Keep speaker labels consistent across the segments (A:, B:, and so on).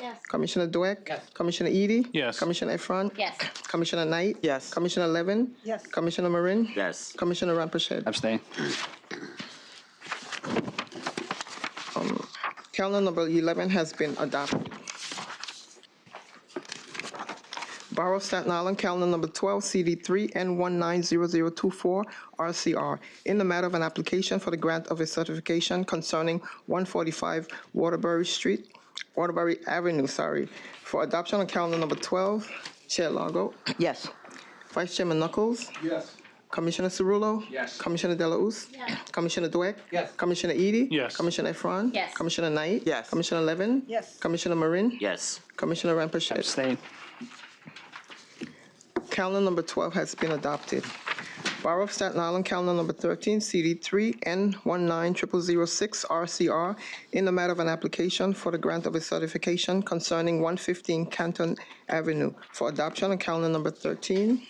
A: Yes.
B: Commissioner Dweck?
C: Yes.
B: Commissioner Edie?
D: Yes.
B: Commissioner Efron?
A: Yes.
B: Commissioner Knight?
C: Yes.
B: Commissioner Levin?
E: Yes.
B: Commissioner Marin?
F: Yes.
B: Commissioner Rampachet?
D: Abstain.
B: Um, Calendar number 11 has been adopted. Borough of Staten Island, calendar number 12, CD3 N190024 RCR, in the matter of an application for the grant of a certification concerning 145 Waterbury Street, Waterbury Avenue, sorry, for adoption on calendar number 12. Chair Longo.
E: Yes.
B: Vice Chairman Knuckles.
C: Yes.
B: Commissioner Cerullo?
C: Yes.
B: Commissioner Delauss?
A: Yes.
B: Commissioner Dweck?
C: Yes.
B: Commissioner Edie?
D: Yes.
B: Commissioner Efron?
A: Yes.
B: Commissioner Knight?
C: Yes.
B: Commissioner Levin?
E: Yes.
B: Commissioner Marin?
F: Yes.
B: Commissioner Rampachet?
D: Abstain.
B: Calendar number 12 has been adopted. Borough of Staten Island, calendar number 13, CD3 N19006 RCR, in the matter of an application for the grant of a certification concerning 115 Canton Avenue for adoption on calendar number 13.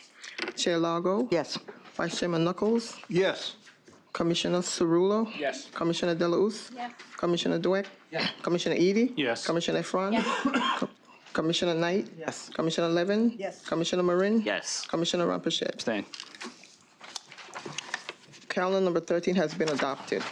B: Chair Lago?
E: Yes.
B: Vice Chairman Knuckles?
C: Yes.
B: Commissioner Cerullo?
C: Yes.
B: Commissioner Delauss?
A: Yes.
B: Commissioner Dweck?
C: Yes.
B: Commissioner Edie?
D: Yes.
B: Commissioner Efron? Co- Commissioner Knight?
E: Yes.
B: Commissioner Levin?
E: Yes.
B: Commissioner Marin?
F: Yes.
B: Commissioner Rampachet?
D: Abstain.
B: Calendar number 13 has been adopted.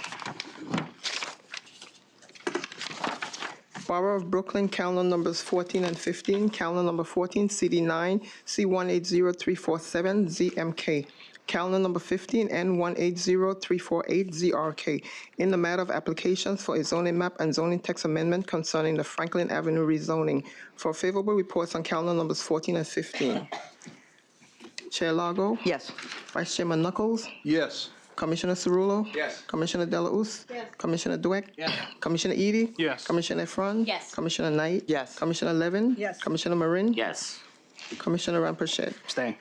B: Borough of Brooklyn, calendar numbers 14 and 15, calendar number 14, CD9, C180347, ZMK. Calendar number 15, N180348, ZRK, in the matter of applications for a zoning map and zoning text amendment concerning the Franklin Avenue rezoning. For favorable reports on calendar numbers 14 and 15. Chair Lago?
E: Yes.
B: Vice Chairman Knuckles?
C: Yes.
B: Commissioner Cerullo?
C: Yes.
B: Commissioner Delauss?
A: Yes.
B: Commissioner Dweck?
C: Yes.
B: Commissioner Edie?
D: Yes.
B: Commissioner Efron?
A: Yes.
B: Commissioner Knight?
C: Yes.
B: Commissioner Levin?
E: Yes.
B: Commissioner Marin?
F: Yes.
B: Commissioner Rampachet?
D: Abstain.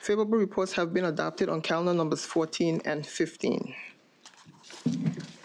B: Favorable reports have been adopted on calendar numbers 14 and 15.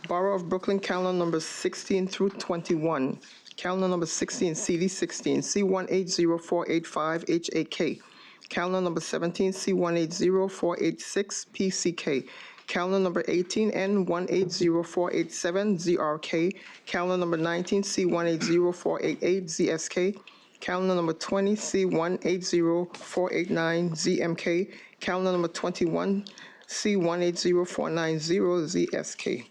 B: Borough of Brooklyn, calendar numbers 16 through 21. Calendar number 16, CD 16, C180485, HAK. Calendar number 17, C180486, PCK. Calendar number 18, N180487, ZRK. Calendar number 19, C180488, ZSK. Calendar number 20, C180489, ZMK. Calendar number 21, C180490, ZSK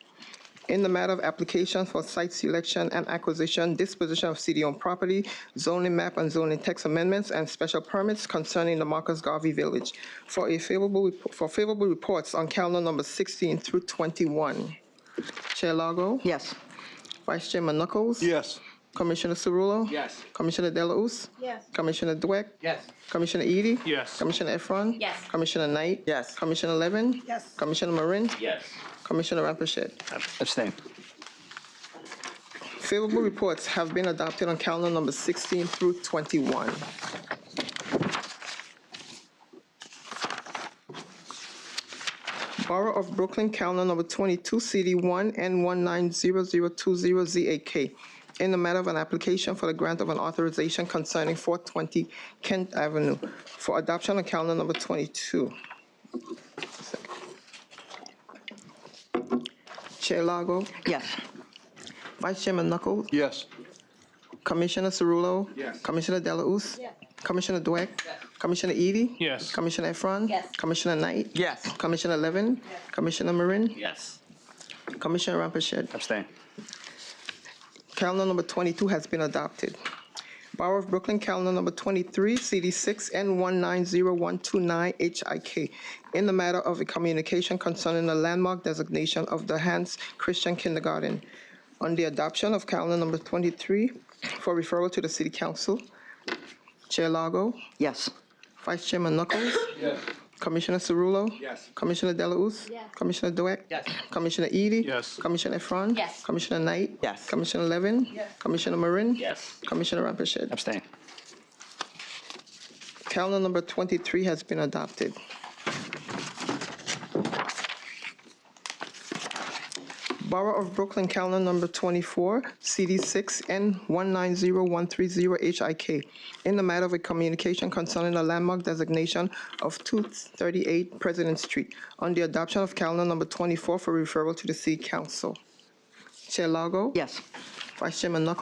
B: in the matter of application for site selection and acquisition, disposition of city-owned property, zoning map and zoning text amendments, and special permits concerning the Marcus Garvey Village for a favorable, rep- for favorable reports on calendar number 16 through 21. Chair Lago?
E: Yes.
B: Vice Chairman Knuckles?
C: Yes.
B: Commissioner Cerullo?
C: Yes.
B: Commissioner Delauss?
A: Yes.
B: Commissioner Dweck?
C: Yes.
B: Commissioner Edie?
D: Yes.
B: Commissioner Efron?
A: Yes.
B: Commissioner Knight?
C: Yes.
B: Commissioner Levin?
E: Yes.
B: Commissioner Marin?
F: Yes.
B: Commissioner Rampachet?
D: Abstain.
B: Favorable reports have been adopted on calendar number 16 through 21. Borough of Brooklyn, calendar number 22, CD1 N190020ZAK, in the matter of an application for the grant of an authorization concerning 420 Kent Avenue for adoption on calendar number 22. Chair Lago,
E: Yes.
B: Vice Chairman Knuckles,
C: Yes.
B: Commissioner Cerullo?
C: Yes.
B: Commissioner Delauss?
A: Yes.
B: Commissioner Dweck? Commissioner Edie?
D: Yes.
B: Commissioner Efron?
A: Yes.
B: Commissioner Knight?
C: Yes.
B: Commissioner Levin? Commissioner Marin?
F: Yes.
B: Commissioner Rampachet?
D: Abstain.
B: Calendar number 22 has been adopted. Borough of Brooklyn, calendar number 23, CD6 N190129HIK, in the matter of a communication concerning the landmark designation of the Hans Christian Kindergarten. On the adoption of calendar number 23 for referral to the City Council, Chair Lago,
E: Yes.
B: Vice Chairman Knuckles,
C: Yes.
B: Commissioner Cerullo.
C: Yes.
B: Commissioner Delauss.
A: Yes.
B: Commissioner Dweck.
C: Yes.
B: Commissioner Edie.
D: Yes.
B: Commissioner Efron.
A: Yes.
B: Commissioner Knight.
C: Yes.
B: Commissioner Levin. Yes. Commissioner Marin.
F: Yes.
B: Commissioner Rampachet.
D: Abstain.
B: Calendar number 23 has been adopted. Borough of Brooklyn, calendar number 24, CD6 N190130HIK, in the matter of a communication concerning the landmark designation of 238 President Street, on the adoption of calendar number 24 for referral to the City Council. Chair Lago?
E: Yes.
B: Vice Chairman Knuckles?